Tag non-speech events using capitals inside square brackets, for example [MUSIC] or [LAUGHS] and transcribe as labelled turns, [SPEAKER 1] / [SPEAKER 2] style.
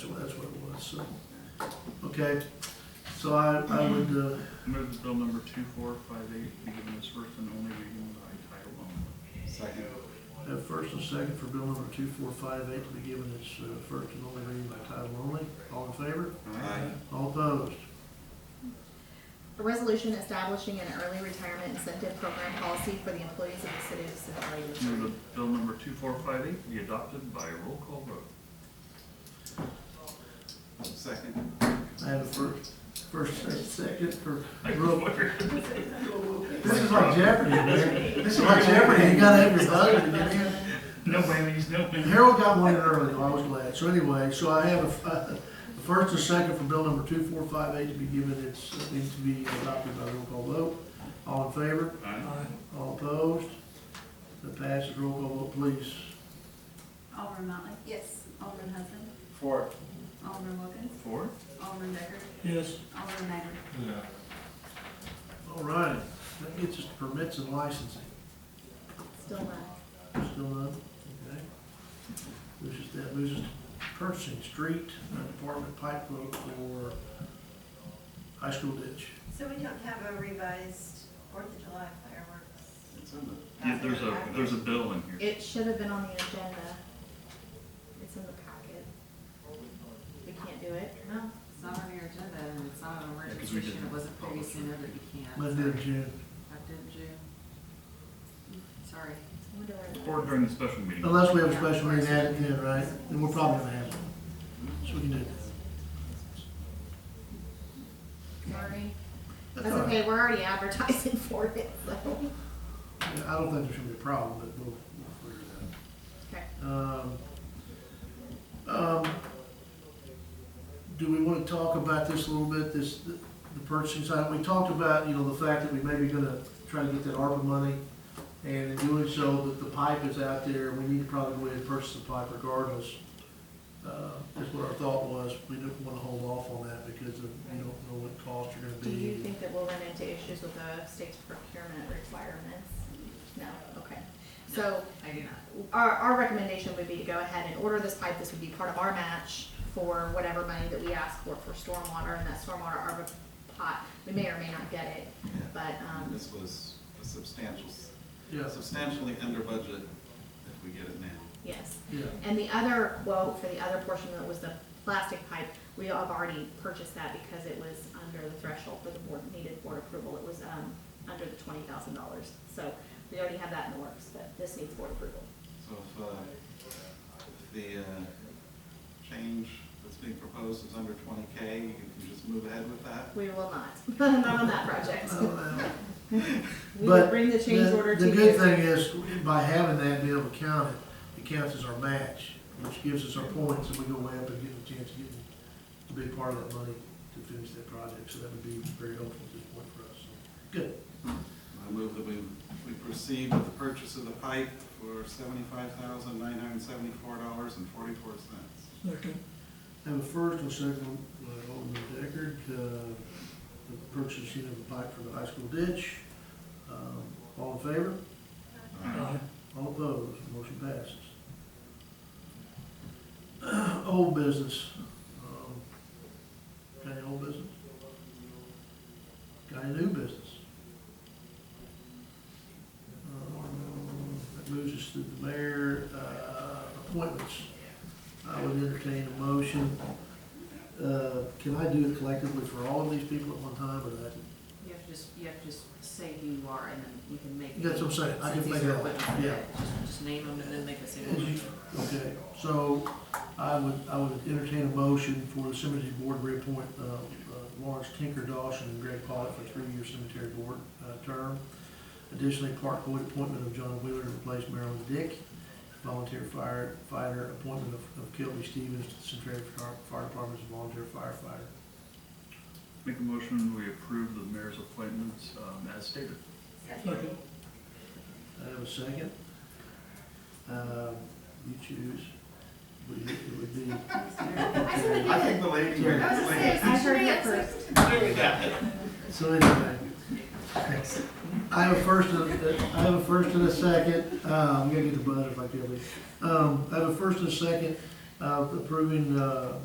[SPEAKER 1] Okay, so I, I would, uh,
[SPEAKER 2] Move that bill number two four five eight be given its first and only reading by title only.
[SPEAKER 3] Second.
[SPEAKER 1] have first and second for bill number two four five eight to be given its uh, first and only reading by title only. All in favor?
[SPEAKER 3] Aye.
[SPEAKER 1] All opposed?
[SPEAKER 4] A resolution establishing an early retirement incentive program policy for the employees of the city of Centralia,
[SPEAKER 2] Move
[SPEAKER 4] Missouri.
[SPEAKER 2] that bill number two four five eight be adopted by roll call vote. [LAUGHS]
[SPEAKER 3] Second.
[SPEAKER 1] I have a first, first and second for
[SPEAKER 2] I
[SPEAKER 1] roll.
[SPEAKER 2] swear.
[SPEAKER 1] This is like Jeopardy, man. This is like Jeopardy. You gotta have your buzzer to get in.
[SPEAKER 2] No whammies, no
[SPEAKER 1] And
[SPEAKER 2] whammies.
[SPEAKER 1] Harold got one early, I was glad. So anyway, so I have a, a first and second for bill number two four five eight to be given its, uh, needs to be adopted by roll call vote. All in favor?
[SPEAKER 2] Aye.
[SPEAKER 1] All opposed? That passes. Roll call vote, please.
[SPEAKER 5] Alderman Motley?
[SPEAKER 4] Yes.
[SPEAKER 5] Alderman Hudson?
[SPEAKER 3] Four.
[SPEAKER 5] Alderman Wilkins?
[SPEAKER 2] Four?
[SPEAKER 5] Alderman Decker?
[SPEAKER 1] Yes.
[SPEAKER 5] Alderman Magley?
[SPEAKER 1] All right, that gets us to permits and licensing.
[SPEAKER 4] Still not.
[SPEAKER 1] Still none, okay. Moves us, that moves us to purchasing street and department pipe load for high school ditch.
[SPEAKER 6] So we don't have a revised Fourth of
[SPEAKER 5] [LAUGHS]
[SPEAKER 6] July fireworks?
[SPEAKER 3] It's in the,
[SPEAKER 2] Yeah, there's a, there's a bill in here.
[SPEAKER 4] It should have been on the agenda. It's in the packet. We can't do it.
[SPEAKER 7] No, it's not on your agenda, and it's not on a
[SPEAKER 2] Yeah,
[SPEAKER 7] work
[SPEAKER 2] 'cause we
[SPEAKER 7] session,
[SPEAKER 2] didn't
[SPEAKER 7] it wasn't
[SPEAKER 2] publish
[SPEAKER 7] previously noted, you can't.
[SPEAKER 1] Monday of June.
[SPEAKER 7] I didn't, June. Sorry.
[SPEAKER 4] I wonder where that-
[SPEAKER 2] Or during the special meeting.
[SPEAKER 1] Unless we have a special meeting added in, right? Then we're probably gonna have it. So we can do that.
[SPEAKER 4] Sorry.
[SPEAKER 1] That's
[SPEAKER 4] That's
[SPEAKER 1] all right.
[SPEAKER 4] okay, we're already advertising [LAUGHS] for it, so.
[SPEAKER 1] Yeah, I don't think there should be a problem, but we'll, we'll figure it out.
[SPEAKER 4] Okay.
[SPEAKER 1] Um, um, Do we want to talk about this a little bit, this, the the purchasing side? We talked about, you know, the fact that we may be gonna try to get that ARPA money, and in doing so, that the pipe is out there, we need to probably go ahead and purchase the pipe regardless. Uh, That's what our thought was, we didn't want to hold off on that because of, we don't know what costs are gonna
[SPEAKER 4] Do
[SPEAKER 1] be.
[SPEAKER 4] you think that we'll run into issues with the state's procurement requirements? No, okay. So
[SPEAKER 7] I do not.
[SPEAKER 4] our, our recommendation would be to go ahead and order this pipe. This would be part of our match for whatever money that we ask for for stormwater and that stormwater ARPA pot. We may or may not get it,
[SPEAKER 3] yeah.
[SPEAKER 4] but, um,
[SPEAKER 3] This was a substantial,
[SPEAKER 1] Yeah,
[SPEAKER 3] substantially under budget if we get it now.
[SPEAKER 4] yes.
[SPEAKER 1] yeah.
[SPEAKER 4] And the other quote for the other portion that was the plastic pipe, we have already purchased that because it was under the threshold for the board, needed board approval. It was, um, under the twenty thousand dollars. So we already have that in the works, but this needs board approval.
[SPEAKER 3] So if, uh, if the, uh, change that's being proposed is under twenty K, you can just move ahead with that.
[SPEAKER 4] We will not, [LAUGHS] not on that project.
[SPEAKER 1] Uh, But
[SPEAKER 4] We will bring the change
[SPEAKER 1] The-
[SPEAKER 4] order to you.
[SPEAKER 1] The good thing is, by having that, being able to count it, it counts as our match, which gives us our points, and we go way up and get a chance of getting a big part of that money to finish that project, so that would be very helpful at this point for us. So, Good.
[SPEAKER 3] I move that we, we proceed with the purchase of the pipe for seventy-five thousand nine hundred and seventy-four dollars and forty-four cents.
[SPEAKER 1] Have a first and second, uh, Alderman Deckard, uh, the purchasing of the pipe for the high school ditch. Um, All in favor? All opposed, motion passes. [CLEARS THROAT] Old business. Um, Got any old business? Got any new business? Um, That moves us to the mayor uh, appointments. I would entertain a motion. Uh, Can I do it collectively for all of these people at one time, or that?
[SPEAKER 7] You have to just, you have to just say who you are, and then you can make.
[SPEAKER 1] That's what I'm saying, I
[SPEAKER 7] since
[SPEAKER 1] can make
[SPEAKER 7] these are
[SPEAKER 1] it all,
[SPEAKER 7] equipment,
[SPEAKER 1] yeah.
[SPEAKER 7] just- Just name them and then make a single.
[SPEAKER 1] As you-
[SPEAKER 7] motion.
[SPEAKER 1] Okay, so I would, I would entertain a motion for the cemetery board to reappoint uh, uh, Lawrence Tinker Dawson and Greg Pollock for three-year cemetery board uh, term. Additionally, park board appointment of John Wheeler to replace Marilyn Dick. Volunteer firefighter appointment of of Kelby Stevens to the Centaria Fire Fire Department as a volunteer firefighter.
[SPEAKER 2] Make a motion, we approve the mayor's appointments, um, as stated.
[SPEAKER 6] Second.
[SPEAKER 1] I have a second. Um, You choose. Would it it would be,
[SPEAKER 6] I said
[SPEAKER 3] I think the lady here.
[SPEAKER 6] I was gonna say,
[SPEAKER 4] I heard
[SPEAKER 6] somebody else
[SPEAKER 4] it first.
[SPEAKER 6] said-
[SPEAKER 1] so anyway. I have a first and a, I have a first and a second, uh, I'm gonna get the buzzer if I can, um, I have a first and a second, uh, approving, uh,